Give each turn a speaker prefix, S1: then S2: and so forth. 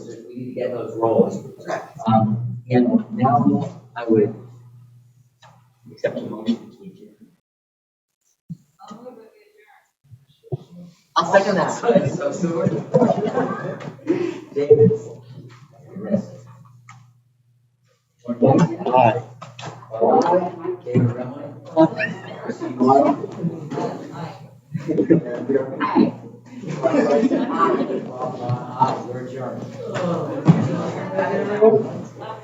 S1: we need to get those rolling.
S2: Correct.
S1: Um, and now I would accept a motion to adjourn.
S2: I'll second that.
S1: So soon. David. Aye. David Remley. Christine Lyle. Aye. We're adjourned.